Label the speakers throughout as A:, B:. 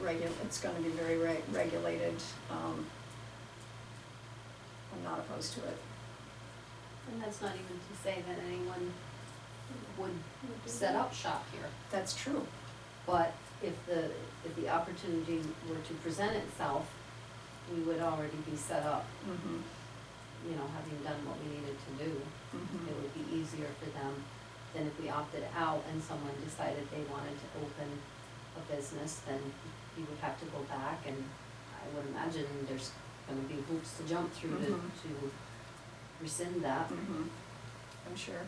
A: regu, it's gonna be very re- regulated, um, I'm not opposed to it.
B: And that's not even to say that anyone would set up shop here,
A: That's true.
B: but if the, if the opportunity were to present itself, we would already be set up,
A: Mm-hmm,
B: you know, having done what we needed to do. It
A: mm-hmm,
B: would be easier for them than if we opted out and someone decided they wanted to open a business, then you would have to go back and I would imagine there's gonna be hoops to jump through to,
A: Mhm.
B: to rescind that.
A: mm-hmm, I'm sure.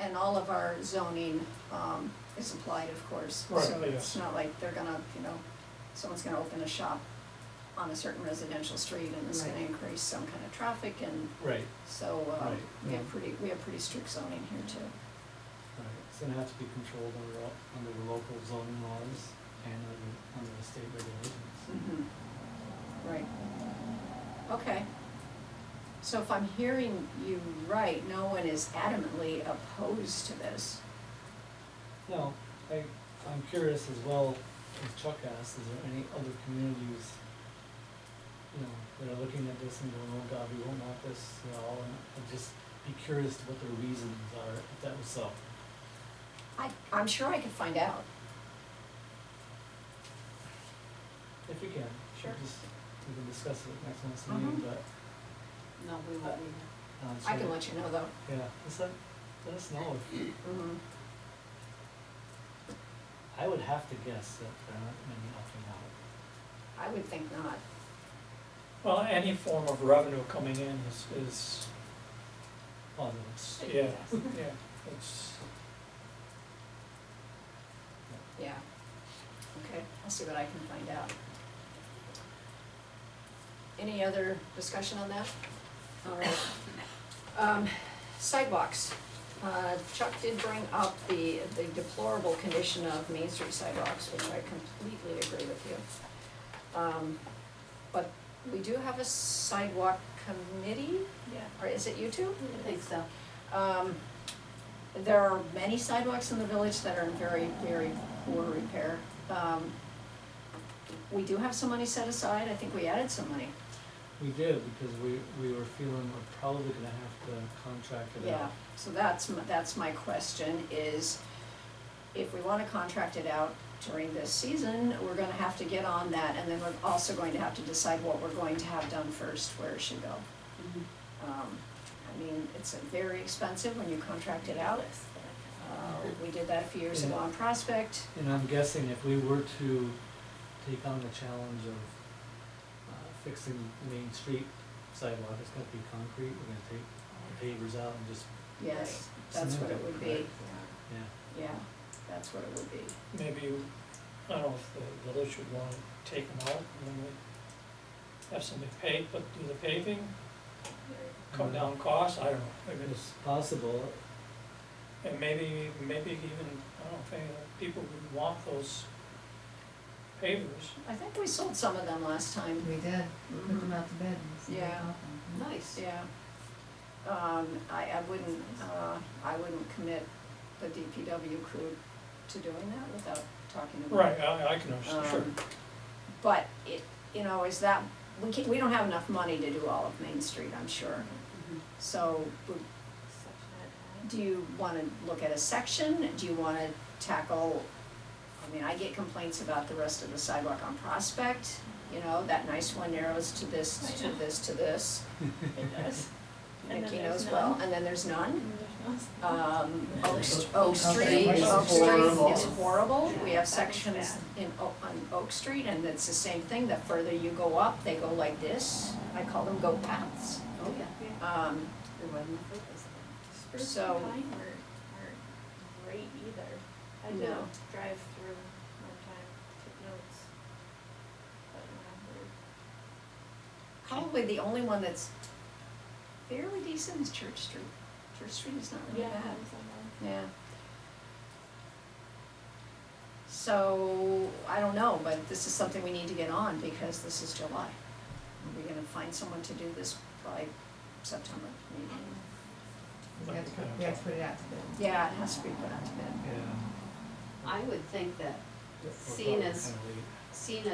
A: And all of our zoning, um, is applied, of course,
C: Right,
A: so it's
C: yes.
A: not like they're gonna, you know, someone's gonna open a shop on a certain residential street and it's gonna
B: Right.
A: increase some kind of traffic and
C: Right,
A: so, uh,
C: Right,
A: we
C: yeah.
A: have pretty, we have pretty strict zoning here too.
C: right, it's gonna have to be controlled under, all- under the local zoning laws and under, under the state regulations.
A: Mm-hmm. Right. Okay. So if I'm hearing you right, no one is adamantly opposed to this.
C: Now, I, I'm curious as well, as Chuck asked, is there any other communities, you know, that are looking at this and going, oh god, we won't want this at all, and I'd just be curious to what their reasons are, if that was so.
A: I, I'm sure I could find out.
C: If we can,
A: Sure.
C: sure, just, we can discuss it next month's meeting,
A: Mhm.
C: but,
B: No, we won't be.
C: um,
A: I can
C: so-
A: let you know though.
C: Yeah, just let, let us know if
A: Mm-hmm.
C: I would have to guess that there aren't many opting out.
A: I would think not.
D: Well, any form of revenue coming in is, is,
C: Well, it's,
D: yeah, yeah, it's,
A: Yeah. Okay, I'll see what I can find out. Any other discussion on that? All right. Um, sidewalks. Uh, Chuck did bring up the, the deplorable condition of Main Street sidewalks, which I completely agree with you. Um, but we do have a sidewalk committee? Yeah. Or is it you two?
B: I think so.
A: Um, there are many sidewalks in the village that are in very, very poor repair. Um, we do have some money set aside, I think we added some money,
C: we did, because we, we were feeling we're probably gonna have to contract it
A: yeah.
C: out.
A: So that's, m- that's my question is, if we wanna contract it out during this season, we're gonna have to get on that and then we're also going to have to decide what we're going to have done first, where it should go.
B: Mm-hmm.
A: Um, I mean, it's very expensive when you contract it out. Uh, we did that a few years ago on Prospect.
C: And I'm guessing if we were to take on the challenge of uh, fixing the Main Street sidewalk, it's gonna be concrete, we're gonna take the pavers out and just,
A: Yes, that's what it would be,
C: Right. yeah.
A: yeah, that's what it would be.
D: maybe, I don't know if the village would want to take them out, and then we have somebody pay, but do the paving, come down costs, I don't know, maybe it's,
C: It's possible,
D: and maybe, maybe even, I don't know, if any of the people would want those pavers.
A: I think we sold some of them last time.
E: We did, put
D: Mm-hmm.
E: them out to bed. and see what
A: Yeah.
E: happened.
B: Nice.
A: Yeah. Um, I, I wouldn't, uh, I wouldn't commit the DPW crew to doing that without talking to them.
D: Right, I, I can understand, sure,
A: Um, But it, you know, is that, we can, we don't have enough money to do all of Main Street, I'm sure.
B: Mhm.
A: So, would- do you wanna look at a section, do you wanna tackle, I mean, I get complaints about the rest of the sidewalk on Prospect, you know, that nice one narrows to this, to this, to this,
F: It does. And
A: Nikki
F: then
A: knows
F: there's
A: well,
F: none.
A: and then there's none. Um, Oak,
C: Yeah.
A: St- Oak
E: Oak
A: Street,
E: Street
A: Oak Street
E: is
A: is
E: horrible.
A: horrible, we
F: Yeah,
A: have
F: that one's
A: sections
F: bad.
A: in Oak, on Oak Street, and it's the same thing, the further you go up, they go like this, I call them goat paths.
B: Oh, yeah.
A: Um,
B: There wasn't a purpose then.
F: Spruce
A: So-
F: and pine weren't, weren't great either. I did
A: No.
F: drive through one time, took notes. But no,
A: Probably the only one that's fairly decent is Church Street. Church Street is not
F: we're,
A: really
F: yeah,
A: bad.
F: that was on there.
A: Yeah. So, I don't know, but this is something we need to get on because this is July. Are we gonna find someone to do this by September? maybe?
E: We had to put, we had to put it out to bed.
A: Yeah, it has to be put out to bid.
C: yeah.
B: I would think that
C: We're
B: Seeing
C: probably
B: as-
C: kinda late.
B: seeing